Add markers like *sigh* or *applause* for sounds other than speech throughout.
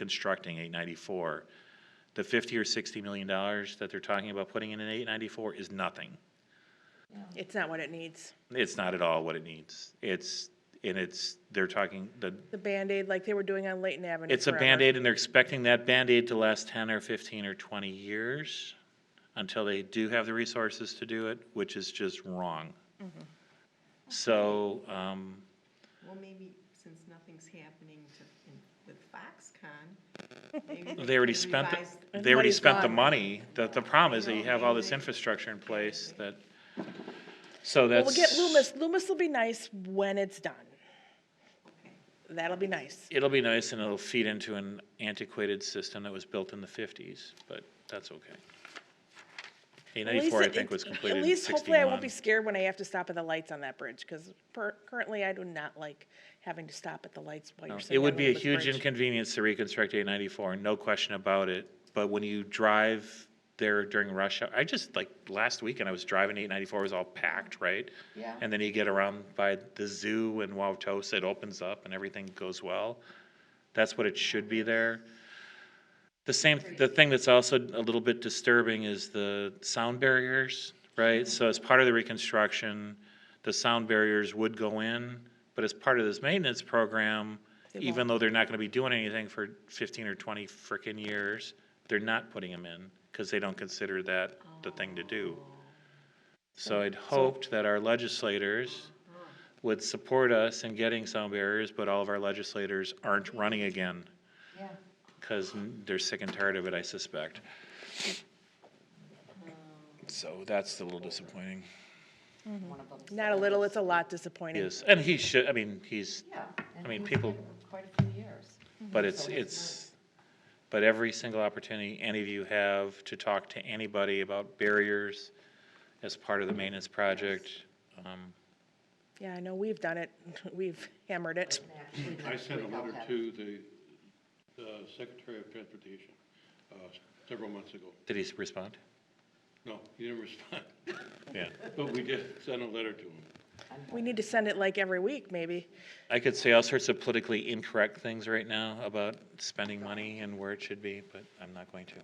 reconstructing eight ninety-four, the fifty or sixty million dollars that they're talking about putting in an eight ninety-four is nothing. It's not what it needs. It's not at all what it needs. It's, and it's, they're talking, the, The Band-Aid, like they were doing on Layton Avenue. it's a forever. Band-Aid and they're expecting that Band-Aid to last ten or fifteen or twenty years until they do have the resources to do it, which is just wrong. Mm-hmm. So, um, Well, maybe since nothing's happening to, in- with Foxconn, *laughs* maybe. They already could spent, the- revise- they already Money's spent the gone. money. The, the problem is that you have all this infrastructure in place that, so Well, that's. We'll get Loomis. Loomis will be nice when it's done. Okay. That'll be nice. It'll be nice and it'll feed into an antiquated system that was built in the fifties, but that's okay. Eight At least ninety-four, I it- think, was it- completed in At least hopefully I won't be sixty-one. scared when I have to stop at the lights on that bridge, because currently I do not like having to stop at the lights while No, you're sitting It on would be a Loomis huge Bridge. inconvenience to reconstruct eight ninety-four, no question about it. But when you drive there during rush hour, I just, like, last weekend I was driving eight ninety-four, it was all packed, right? Yeah. And then you get around by the zoo and Wauwatosa, it opens up and everything goes well. That's what it should be there. The same, the thing that's also a little bit disturbing is the sound barriers, right? So as part of the reconstruction, the sound barriers would go in, but as part of this maintenance program, even though they're not gonna be doing anything for fifteen or twenty frickin' years, they're not putting them in, cause they don't consider that the thing to do. So I'd hoped that our legislators would support us in getting sound barriers, but all of our legislators aren't running again. Because they're sick and tired of it, I suspect. So that's a little disappointing. Not a little, it's a lot disappointing. Yes, and he should, I mean, he's, Yeah. and mean, he's people- been for Quite a few years. but it's, it's, but every single opportunity any of you have to talk to anybody about barriers as part of the maintenance project, um, Yeah, I know, we've done it. *laughs* We've hammered it. And actually I next sent week a I'll letter have- to the uh, Secretary of Transportation uh, several months ago. did he respond? No, he didn't respond, *laughs* Yeah. but we did send a letter to him. We need to send it like every week, maybe. I could say all sorts of politically incorrect things right now about spending money and where it should be, but I'm not going to.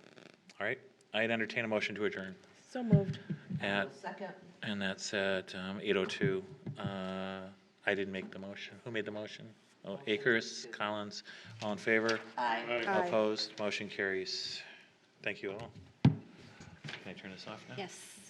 All right, I'd entertain a motion to adjourn So moved. at, Second, and that's at um, 8:02. Uh, I didn't make the motion. Who made the motion? Oh, Akers, Collins, all in favor? aye. All right. Aye. Opposed, motion carries. Thank you all. Can I turn this off now? Yes.